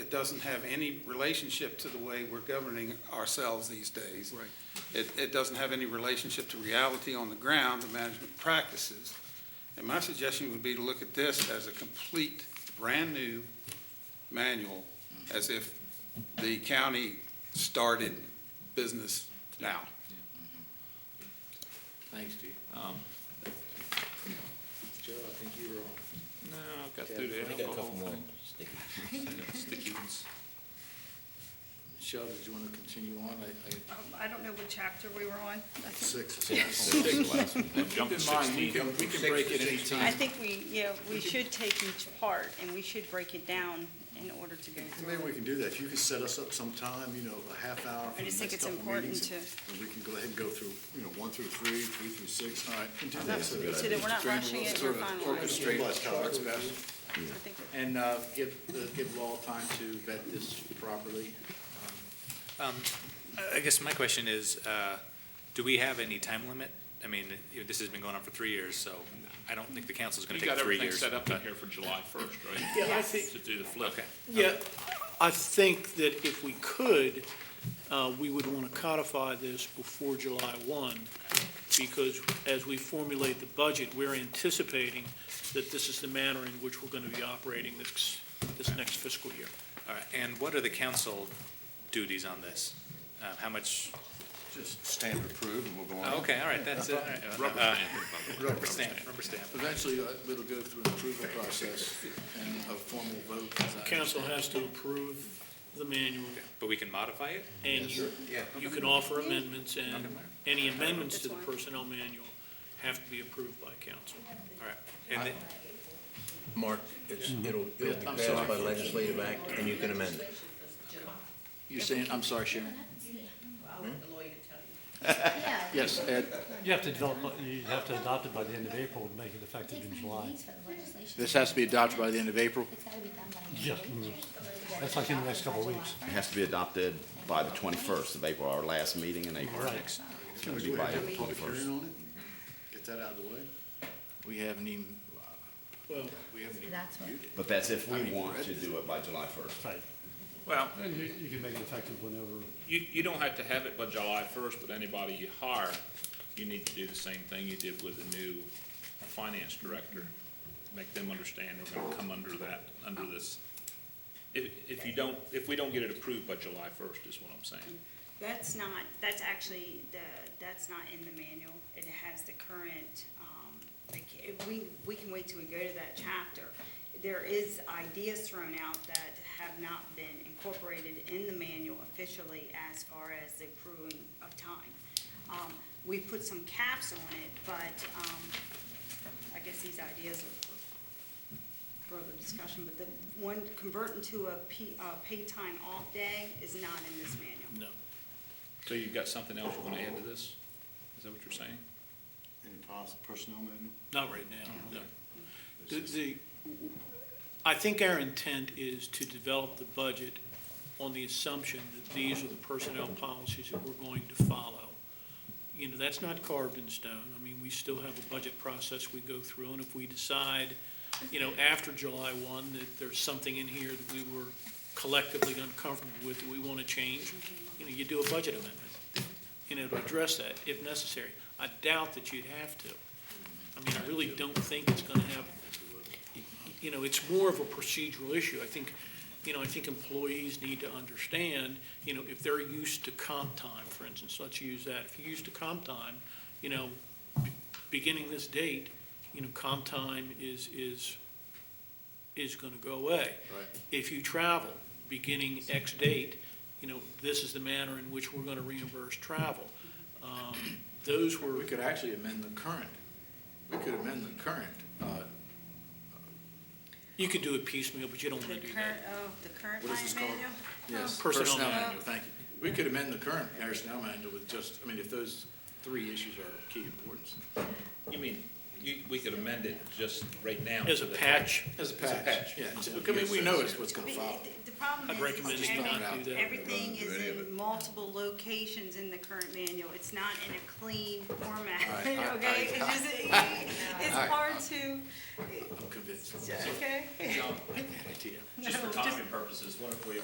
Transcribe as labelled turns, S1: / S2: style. S1: doesn't have any relationship to the way we're governing ourselves these days.
S2: Right.
S1: It, it doesn't have any relationship to reality on the ground, the management practices. And my suggestion would be to look at this as a complete, brand-new manual, as if the county started business now.
S3: Thanks, Steve.
S2: Um,
S3: Joe, I think you were on.
S2: No, I've got through
S3: Yeah,
S2: the
S3: I
S2: alcohol thing. Sticky ones.
S3: Michelle, did you want to continue on? I,
S4: Um, I don't know what chapter we were on. I
S3: I,
S4: think-
S3: six.
S2: Jump to sixteen. We can break it anytime.
S4: I think we, yeah, we should take each part, and we should break it down in order to go
S3: And
S4: through.
S3: Maybe
S4: it.
S3: we can do that. If you could set us up some time, you know, a half hour
S4: I
S3: for the
S4: just think
S3: next
S4: it's
S3: couple
S4: important
S3: meetings.
S4: to,
S3: And we can go ahead and go through, you know, one through three, three through six. All right. and do
S4: not-
S3: that.
S4: so that we're not rushing it, we're finalizing.
S3: Realize how it's best.
S4: I think we're-
S3: And uh, give, uh, give law time to vet this properly.
S5: Um, I- I guess my question is, uh, do we have any time limit? I mean, you know, this has been going on for three years, so I don't think the council's going
S6: You
S5: to take
S6: got
S5: three
S6: everything
S5: years.
S6: set up in here for July first, right?
S7: Yeah, I think,
S6: To do the flip.
S5: Okay.
S7: yeah, I think that if we could, uh, we would want to codify this before July 1, because as we formulate the budget, we're anticipating that this is the manner in which we're going to be operating this, this next fiscal year.
S5: All right, and what are the council duties on this? Uh, How much,
S3: Just standard approved and we'll go
S5: oh, okay, all right, that's it. all right. Uh,
S6: Rubber
S5: uh,
S6: stamp it, by the way.
S5: Rubber stamp, rubber stamp.
S3: Eventually, uh, it'll go through an approval process and a formal vote. as I
S7: Council
S3: understand.
S7: has to approve the manual,
S5: But we can modify it?
S7: and you, you can offer amendments, and any amendments to the
S4: That's fine.
S7: personnel manual have to be approved by council.
S5: All right. And then-
S8: Mark, it's, it'll, it'll be
S3: I'm
S8: passed
S3: sorry.
S8: by legislative act, and you can amend it.
S3: You're saying, I'm sorry, Sharon?
S9: I'll let the lawyer tell you.
S3: Yes, Ed,
S10: You have to develop, you have to adopt it by the end of April and make it effective in July.
S3: this has to be adopted by the end of April?
S10: Yeah, mm. that's like in the next couple of weeks.
S11: It has to be adopted by the 21st of April, our last meeting in April.
S10: Right.
S11: It's going to be by
S3: Have
S11: April
S3: a public
S11: 21st.
S3: hearing on it? Get that out of the way? We haven't even,
S7: Well,
S3: we haven't even
S9: That's what-
S3: reviewed it.
S11: But that's if we want to do it by July 1st.
S10: Right.
S6: Well,
S10: And you, you can make it effective whenever.
S6: you, you don't have to have it by July first, but anybody you hire, you need to do the same thing you did with the new finance director. Make them understand we're gonna come under that, under this. If, if you don't, if we don't get it approved by July first is what I'm saying.
S4: That's not, that's actually the, that's not in the manual. It has the current, um, like, if we, we can wait till we go to that chapter. There is ideas thrown out that have not been incorporated in the manual officially as far as the accruing of time. Um, we put some caps on it, but, um, I guess these ideas are for further discussion, but the one converting to a P, uh, paid time off day is not in this manual.
S7: no.
S6: So you've got something else you wanna add to this? Is that what you're saying?
S3: Any pos- personnel manual?
S7: Not right now, no. The, the, I think our intent is to develop the budget on the assumption that these are the personnel policies that we're going to follow. You know, that's not carved in stone. I mean, we still have a budget process we go through, and if we decide, you know, after July one, that there's something in here that we were collectively uncomfortable with, that we want to change, you know, you do a budget amendment, you know, to address that if necessary. I doubt that you'd have to. I mean, I really don't think it's gonna have, you know, it's more of a procedural issue. I think, you know, I think employees need to understand, you know, if they're used to comp time, for instance, let's use that. If you're used to comp time, you know, be- beginning this date, you know, comp time is, is, is gonna go away.
S3: Right.
S7: If you travel, beginning X date, you know, this is the manner in which we're gonna reimburse travel. Um, Those were.
S3: We could actually amend the current, we could amend the current, uh,
S7: You could do it piecemeal, but you don't
S4: The
S7: want to do
S4: current,
S7: that.
S4: oh, the current
S3: What is this
S4: line
S3: called?
S4: manual?
S3: yes,
S7: Personnel
S3: personnel
S7: manual.
S3: manual, thank you. We could amend the current personnel manual with just, I mean, if those three issues are of key importance.
S6: You mean, you, we could amend it just right now.
S7: As
S6: to
S7: a
S6: the-
S7: patch,
S3: As a
S6: patch.
S3: Yeah, I mean, we know it's what's
S4: Oh, I
S3: gonna
S4: mean,
S3: follow.
S4: the- The problem
S7: I'd
S4: is,
S7: recommend
S4: is
S7: just
S4: every-
S7: not do that.
S4: everything is in multiple locations in the current manual. It's not in a clean format,
S3: All right, all right,
S4: okay? It's
S3: all
S4: just, it's
S3: right.
S4: hard to,
S3: I'm convinced.
S4: okay?
S6: John,
S3: Idea.
S6: Just for timing purposes, what if we